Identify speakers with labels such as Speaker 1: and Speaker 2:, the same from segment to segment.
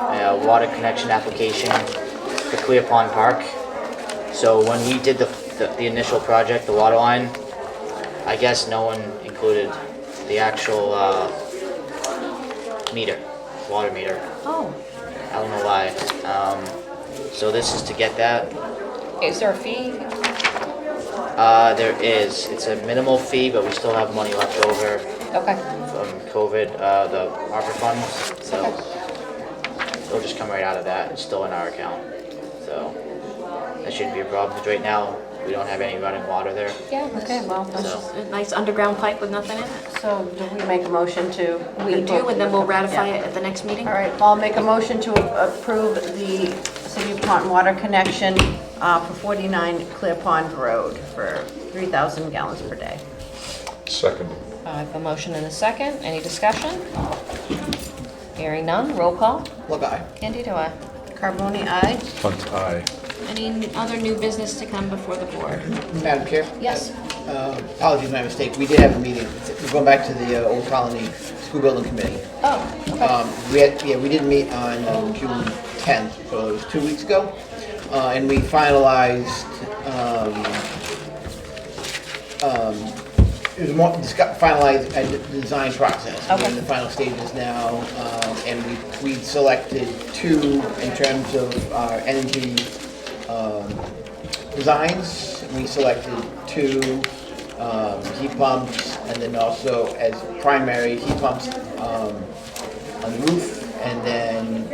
Speaker 1: uh, water connection application for Clear Pond Park. So when we did the, the- the initial project, the water line, I guess no one included the actual uh, meter, water meter.
Speaker 2: Oh,
Speaker 1: I don't know why. Um, So this is to get that.
Speaker 2: is there a fee?
Speaker 1: Uh, There is, it's a minimal fee, but we still have money left over
Speaker 2: Okay,
Speaker 1: from COVID, uh, the ARPA funds, so it'll just come right out of that, it's still in our account, so that shouldn't be a problem, 'cause right now, we don't have any running water there.
Speaker 2: yeah, okay, well,
Speaker 3: That's
Speaker 1: So-
Speaker 3: just a nice underground pipe with nothing in it.
Speaker 4: So do we make a motion to?
Speaker 3: We do, and then we'll ratify it at the next meeting.
Speaker 4: All right, I'll make a motion to approve the City of Taunton water connection uh, for 49 Clear Pond Road for 3,000 gallons per day.
Speaker 5: Second.
Speaker 2: Uh, I have a motion and a second, any discussion? Hearing none, roll call.
Speaker 6: Look, I,
Speaker 2: Candy, do I?
Speaker 4: Carboni, aye?
Speaker 5: Hunt eye.
Speaker 3: Any other new business to come before the board?
Speaker 6: Madam Chair?
Speaker 3: Yes.
Speaker 6: Uh, Apologies, my mistake. We did have a meeting. We're going back to the uh, Old Colony School Building Committee.
Speaker 2: Oh, okay,
Speaker 6: Um, We had, yeah, we did meet on um, June 10th, so it was two weeks ago. Uh, And we finalized, um, um, it was more, discu- finalized a d- design process. We're
Speaker 2: Okay.
Speaker 6: in the final stages now, um, and we, we selected two in terms of our energy um, designs. We selected two um, heat pumps, and then also as primary heat pumps, um, on the roof, and then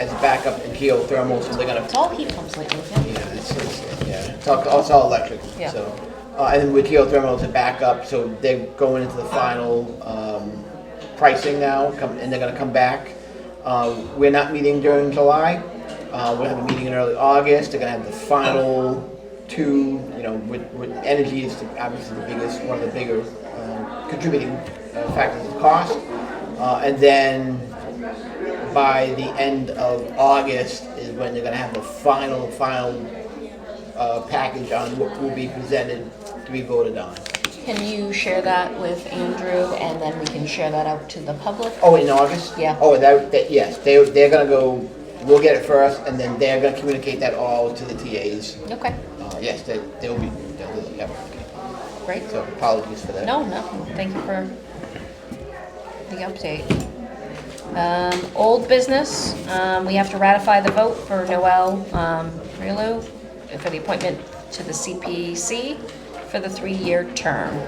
Speaker 6: as a backup, the geothermal, so they're gonna,
Speaker 2: it's all heat pumps lately, yeah.
Speaker 6: yeah, it's, it's, yeah, it's all, it's all electric,
Speaker 2: Yeah.
Speaker 6: so. Uh, and then with geothermal, it's a backup, so they're going into the final, um, pricing now, come, and they're gonna come back. Uh, we're not meeting during July, uh, we'll have a meeting in early August, they're gonna have the final two, you know, with, with energy is the- obviously the biggest, one of the bigger, uh, contributing uh, factors of cost. Uh, and then by the end of August is when they're gonna have the final, final uh, package on what will be presented to be voted on.
Speaker 2: Can you share that with Andrew, and then we can share that out to the public?
Speaker 6: Oh, in August?
Speaker 2: Yeah.
Speaker 6: Oh, that, that, yes, they, they're gonna go, we'll get it first, and then they're gonna communicate that all to the TAs.
Speaker 2: Okay,
Speaker 6: Uh, yes, they, they'll be, they'll, do it, yeah, okay.
Speaker 2: great.
Speaker 6: So apologies for that.
Speaker 2: No, no, thank you for the update. Um, Old business, um, we have to ratify the vote for Noel um, Relu for the appointment to the CPC for the three-year term.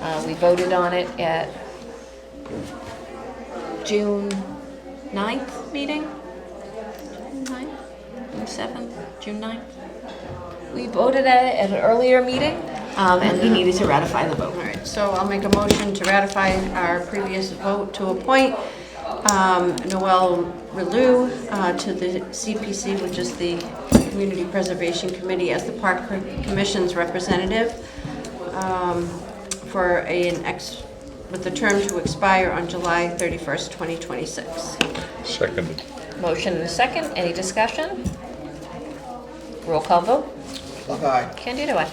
Speaker 2: Uh, We voted on it at
Speaker 3: June 9th meeting? June 9th? June 7th? June 9th?
Speaker 2: We voted at it at an earlier meeting, um, and we needed to ratify the
Speaker 4: All
Speaker 2: vote.
Speaker 4: right, so I'll make a motion to ratify our previous vote to appoint um, Noel Relu uh, to the CPC, which is the Community Preservation Committee, as the Park Commission's representative um, for an ex, with the term to expire on July 31st, 2026.
Speaker 5: Seconded.
Speaker 2: Motion and a second, any discussion? Roll call vote,
Speaker 6: Okay.
Speaker 2: Candido, aye.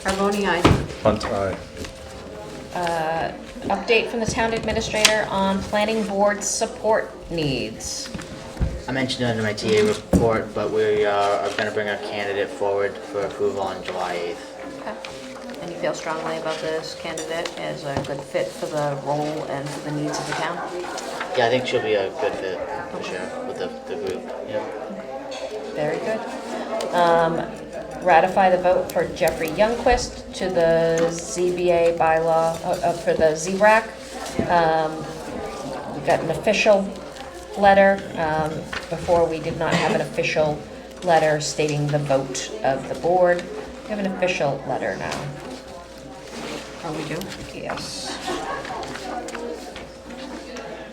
Speaker 4: Carboni, aye.
Speaker 5: Hunt eye.
Speaker 2: Update from the town administrator on planning board support needs.
Speaker 1: I mentioned it in my TA report, but we uh, are gonna bring our candidate forward for approval on July 8th.
Speaker 3: And you feel strongly about this candidate as a good fit for the role and for the needs of the town?
Speaker 1: Yeah, I think she'll be a good fit, for sure, with the, the group, yeah.
Speaker 2: Very good. Um, Ratify the vote for Jeffrey Youngquist to the ZBA bylaw, uh, uh, for the ZRAC. Um, We got an official letter. um, Before, we did not have an official letter stating the vote of the board. We have an official letter now.
Speaker 4: Oh, we do?
Speaker 2: Yes.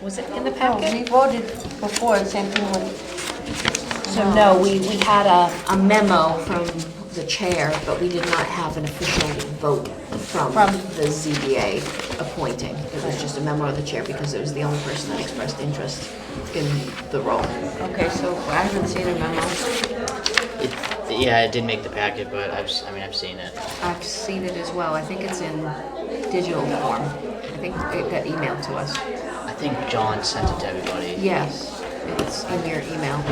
Speaker 2: Was it in the
Speaker 4: Oh,
Speaker 2: packet?
Speaker 4: we voted before, the same thing with...
Speaker 3: So no, we, we had a, a memo from the chair, but we did not have an official vote from
Speaker 4: From-
Speaker 3: the ZBA appointing. It was just a memo of the chair because it was the only person that expressed interest in the role.
Speaker 4: Okay, so I haven't seen a memo.
Speaker 1: It, yeah, it did make the packet, but I've, s- I mean, I've seen it.
Speaker 3: I've seen it as well. I think it's in digital form. I think it got emailed to us.
Speaker 1: I think John sent it to everybody.
Speaker 3: Yes, it's in your email.